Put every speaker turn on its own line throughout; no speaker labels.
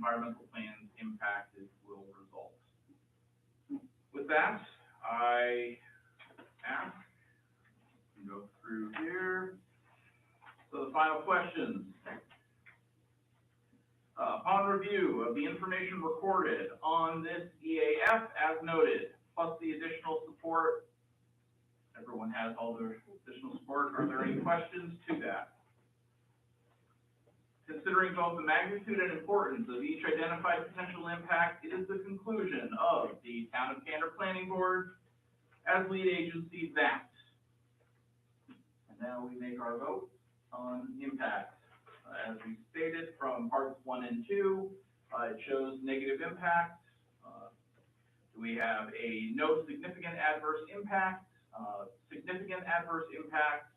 environmental plans impacted will result. With that, I ask, we go through here. So the final questions. Uh, upon review of the information recorded on this EAF as noted, plus the additional support, everyone has all their additional support, are there any questions to that? Considering both the magnitude and importance of each identified potential impact, it is the conclusion of the Town of Cantor Planning Board as lead agency that. And now we make our vote on impact. Uh, As we stated from parts one and two, uh, it shows negative impact. Uh, We have a no significant adverse impact, uh, significant adverse impact,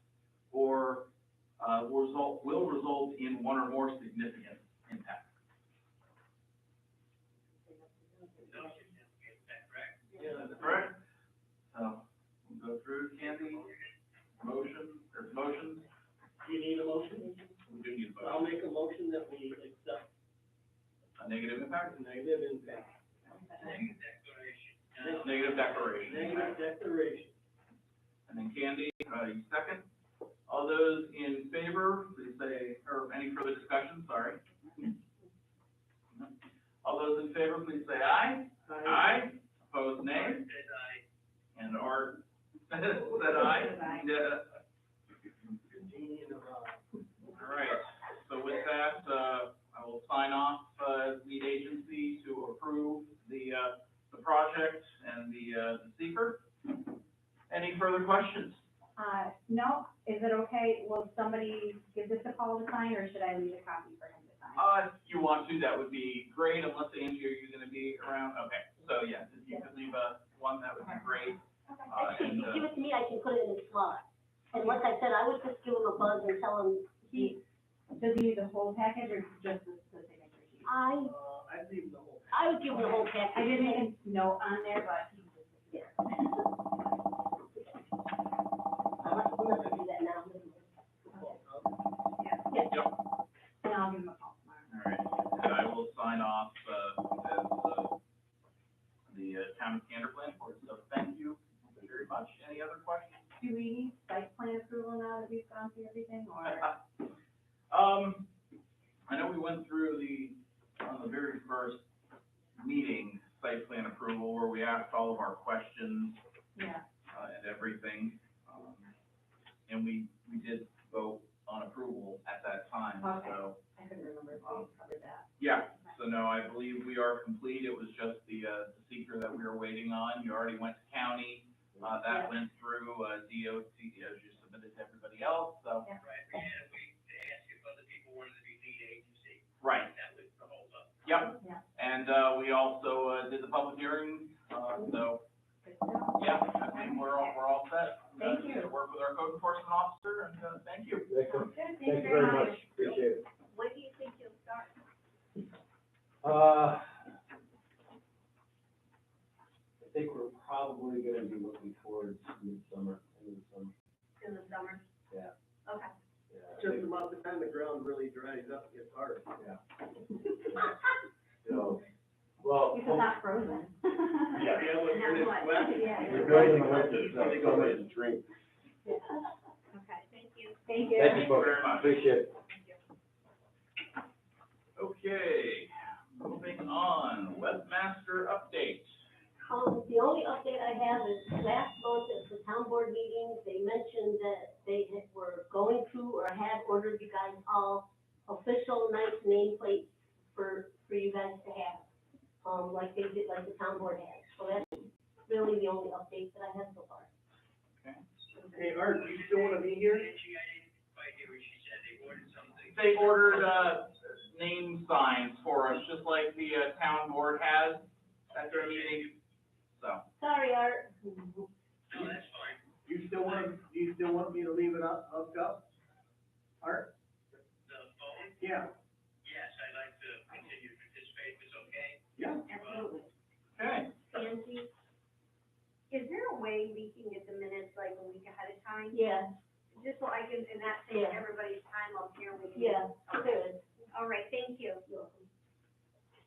or uh, will result, will result in one or more significant impacts. Yeah, that's correct. So, we'll go through, Candy, motion, there's motions,
Do you need a motion?
we do need a
I'll
vote.
make a motion that we accept
A negative impact,
the negative impact,
negative declaration.
negative declaration.
And then Candy, uh, you second. All those in favor, please say, or any further discussion, sorry. All those in favor, please say aye. Aye, opposed nay? And Art said aye. Yeah.
Genie in the bottle.
All right, so with that, uh, I will sign off, uh, as lead agency to approve the, uh, the project and the, uh, the seeker. Any further questions?
Uh, no, is it okay, will somebody give this a call to sign, or should I leave a copy for him to sign?
Uh, if you want to, that would be great, unless Angie, are you gonna be around? Okay, so yeah, if you could leave a one, that would be great. Uh, and,
Actually, if you give
uh,
it to me, I can put it in his slot. And like I said, I would just give him a buzz and tell him,
He, does he need the whole package, or just the, the signature sheet?
I,
Uh, I leave the whole.
I would give him the whole
I
package.
didn't make a note on there, but he just.
I'm not, I'm not gonna do that now.
And I'll give him a call tomorrow.
all right, and I will sign off, uh, as, uh, the uh, town of Canterbury Board, so thank you very much. Any other questions?
Do we need site plan approval now that we've gone through everything, or?
Um, I know we went through the, on the very first meeting, site plan approval, where we asked all of our questions,
Yeah,
uh, and everything. um, And we, we did vote on approval at that time, so,
I couldn't remember if we covered that.
yeah. So no, I believe we are complete, it was just the, uh, the seeker that we were waiting on, you already went to county, uh, that went through, uh, DOT, as you submitted to everybody else, so. Right, Yep,
Yeah,
And, uh, we also, uh, did the public hearing, uh, so,
good to know.
yeah, I think we're all, we're all set. Uh,
Thank you.
Work with our code enforcement officer, and, uh, thank you.
Sounds
Excellent.
good, thank
Thank you very much, appreciate it.
When do you think you'll start?
Uh, I think we're probably gonna be looking towards midsummer, end of summer,
In the summer.
yeah,
Okay.
yeah. I
Just
think-
about the time the ground really dries up, it gets hard.
Yeah. So, well,
Because it's not frozen.
Yeah.
Yeah, when it's
Not
wet.
much, yeah.
we're building a winter, so
Something goes in.
something to drink.
Okay, thank you.
Thank you.
Thank you folks,
Very much.
appreciate it.
Okay, moving on, webmaster update.
Um, the only update I have is last month at the town board meeting, they mentioned that they had- were going to or had ordered you guys all official nice nameplates for, for you guys to have, um, like they did, like the town board had. So that's really the only update that I have so far.
Hey, Art, you still wanna be here?
They ordered, uh, name signs for us, just like the, uh, town board has at their meeting, so.
Sorry, Art.
You still want, do you still want me to leave it up, hooked up? Art? The phone? Yeah. Yes, I'd like to continue to participate, if it's okay. Yeah.
Absolutely.
Okay,
Angie?
Is there a way we can get the minutes like a week ahead of time?
Yeah,
Just so I can, and not save
Yeah.
everybody's time up here, we can.
yeah, there is.
All right, thank you.